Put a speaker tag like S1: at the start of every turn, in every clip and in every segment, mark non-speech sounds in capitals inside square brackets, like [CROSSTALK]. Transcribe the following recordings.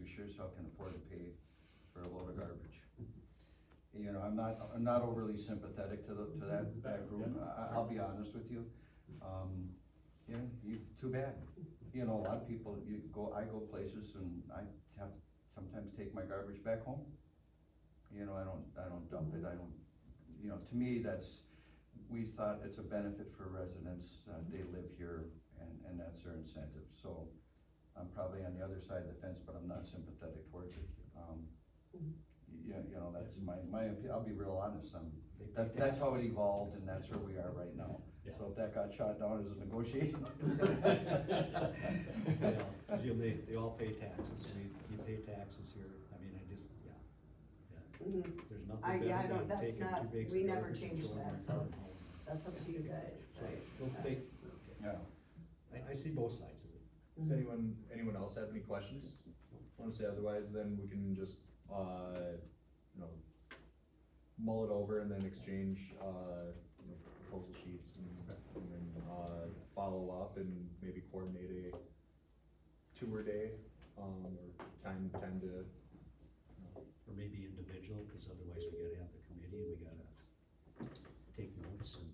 S1: Wichita can afford to pay for a load of garbage. You know, I'm not, I'm not overly sympathetic to the, to that, that group, I, I'll be honest with you. Um, yeah, you, too bad. You know, a lot of people, you go, I go places and I have, sometimes take my garbage back home. You know, I don't, I don't dump it, I don't, you know, to me, that's, we thought it's a benefit for residents, uh, they live here and, and that's their incentive, so. I'm probably on the other side of the fence, but I'm not sympathetic towards it, um, yeah, you know, that's my, my, opi- I'll be real honest, I'm,
S2: They pay
S1: that's, that's how it
S2: taxes.
S1: evolved
S2: [LAUGHS]
S1: and that's where we are right now.
S3: Yeah.
S1: So if that got shot down as a negotiation. [LAUGHS]
S2: Yeah, Jim, they, they all pay taxes, we, you pay taxes here, I mean, I just, yeah, yeah,
S4: Mhm.
S2: there's nothing
S4: I-
S2: better
S4: yeah, I
S2: than
S4: don't- that's
S2: taking two
S4: not-
S2: bags of
S4: we never
S2: garbage and
S4: changed
S2: throwing my
S4: that, so
S2: cart home.
S4: That's up to you guys.
S2: So, well, they,
S1: Yeah,
S2: I, I see both sides of it.
S5: Does anyone, anyone else have any questions? Want to say otherwise, then we can just, uh, you know, mull it over and then exchange, uh, you know, proposal sheets and, and then, uh, follow up and maybe coordinate a tour day, um, or time, time to,
S2: Or maybe individual, cause otherwise we gotta have the committee and we gotta take notes and.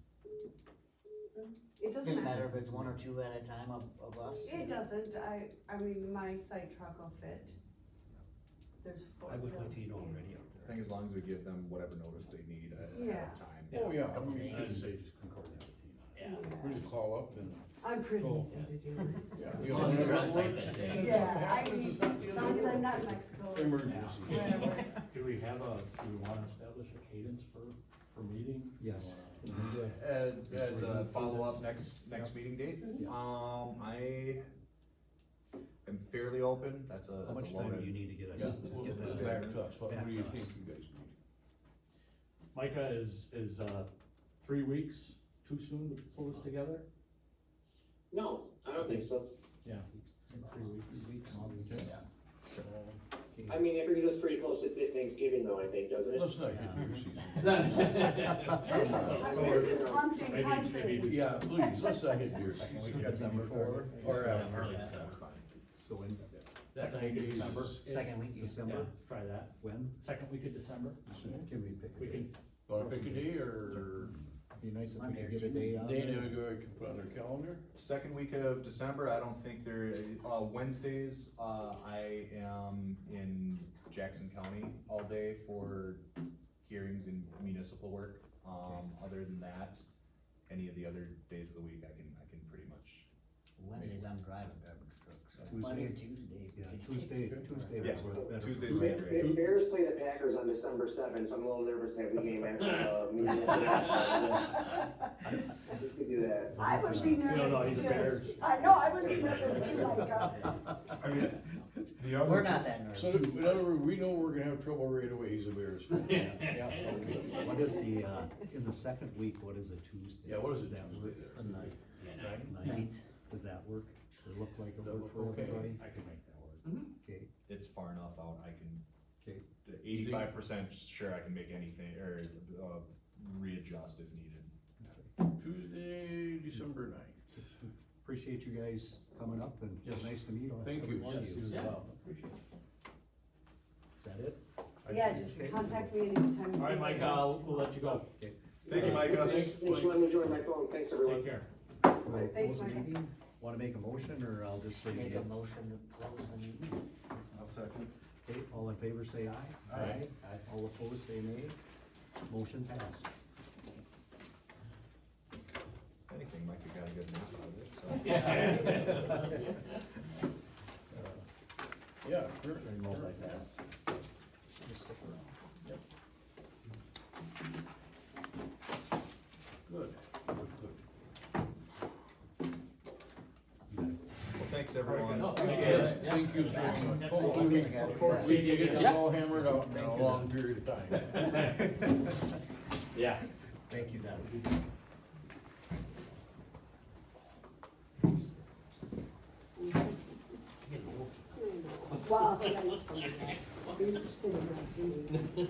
S4: It doesn't
S6: Doesn't
S4: matter.
S6: matter if it's one or two at a time of, of us.
S4: It doesn't, I, I mean, my side truck will fit. There's four.
S2: I would
S4: of
S2: put
S4: them.
S2: Tino already up
S5: I
S2: there.
S5: think as long as we give them whatever notice they need ahead
S4: Yeah.
S5: of time.
S3: Oh,
S6: yeah.
S3: Couple
S6: I
S3: meetings.
S6: would
S3: say just concord that with Tina.
S6: Yeah.
S3: We just call up and.
S4: I'm pretty
S3: Oh.
S4: easy to
S3: [LAUGHS]
S4: do.
S6: As long as you're on site that day.
S4: Yeah, I mean, as long as I'm not in Mexico.
S3: Emergency. [LAUGHS]
S4: Whatever. [LAUGHS]
S3: Do we have a, do we wanna establish a cadence for, for meeting?
S2: Yes.
S3: Uh,
S5: As,
S3: as a follow-up
S5: next, next meeting date,
S2: Yes.
S5: um, I am fairly open, that's a,
S2: How much time do you need to get us,
S3: Yeah, we'll
S2: get
S3: let's
S2: that
S3: get
S2: back?
S3: back to us, what
S2: back
S3: what do you
S2: to us.
S3: think you guys need? Micah is, is, uh, three weeks too soon to pull this together?
S7: No, I don't think so.
S3: Yeah. Three weeks. Okay.
S7: I mean, it brings us pretty close to Th- Thanksgiving though, I think, doesn't it?
S3: Let's not get beer
S4: This is,
S3: season.
S4: this is hunting
S3: Maybe, [LAUGHS] maybe,
S4: country.
S3: yeah, please, let's not get beer season.
S2: December
S5: Or, uh,
S6: Yeah.
S5: that's fine. So in,
S3: That nine days is.
S6: Second week, you
S3: Yeah,
S2: December,
S3: try that.
S2: when?
S3: Second week of December,
S2: Can we pick? a
S3: we
S2: date?
S3: can,
S8: Want to pick a day or
S2: Be nice if we
S6: I'm
S2: could
S6: here
S2: get a
S6: Tuesday.
S2: day on.
S8: Dana we can put on her calendar?
S5: Second week of December, I don't think there, uh, Wednesdays, uh, I am in Jackson County all day for hearings and municipal work. Um, other than that, any of the other days of the week, I can, I can pretty much.
S6: Wednesdays, I'm driving garbage trucks.
S2: Tuesday.
S6: Monday or Tuesday.
S2: Yeah, Tuesday, Tuesday
S5: Yeah,
S2: was better. for
S5: Tuesday's
S2: me.
S5: better.
S7: The the Bears play the Packers on December seventh, so I'm a little nervous that we game after, [LAUGHS] uh, me and We could do that.
S4: I would be
S3: No, no,
S4: nervous
S3: he's a
S4: too.
S3: bear.
S4: I know, I would be nervous too, like, uh,
S8: I mean, the other.
S6: We're not that
S8: So,
S6: nervous.
S8: in other words, we know we're gonna have trouble right away, he's a Bears fan.
S3: Yeah.
S8: okay.
S2: What is the, uh, in the second week, what is a Tuesday?
S8: Yeah, what is
S2: Does
S8: it?
S2: that work?
S8: Tuesday there?
S2: Ninth, does that work? Does it look like it
S8: That
S2: work for
S8: look okay.
S2: everybody?
S3: I can make that work.
S2: Okay,
S5: It's far enough out, I can,
S2: okay.
S5: eighty-five percent sure I can make anything, or, uh, readjust if needed.
S8: Tuesday, December ninth.
S2: Appreciate you guys coming up and
S8: Yes.
S2: nice to meet all.
S8: Thank
S2: every
S8: you.
S2: one of
S8: Yes,
S2: you. Is
S3: Yeah.
S2: that it?
S4: Yeah, just contact me anytime.
S3: All right, Mike, I'll, we'll let you go.
S5: Thank you, Micah.
S7: Thanks, thanks for letting me join my phone, thanks everyone.
S3: Take care.
S2: Will I
S4: Thanks,
S2: close the
S4: Micah.
S2: meeting? Wanna make a motion or I'll just say,
S6: Make
S2: yeah?
S6: a motion to close the meeting.
S1: I'll second.
S2: okay, all in favor say aye.
S8: Aye.
S2: Aye. All opposed say nay. Motion passed.
S5: If anything, Micah got a good nap out of it, so.
S8: Yeah. sure.
S2: And roll like that. Just stick around.
S8: Good, good, good.
S3: [LAUGHS]
S5: Well, thanks, everyone.
S8: Thank you very much. Hopefully, we- hopefully Oh, we get this all hammered out in a long period of time.
S3: Yeah.
S2: Thank you, that would be.
S4: Wow. yeah, I'm telling you. You're sitting right to me.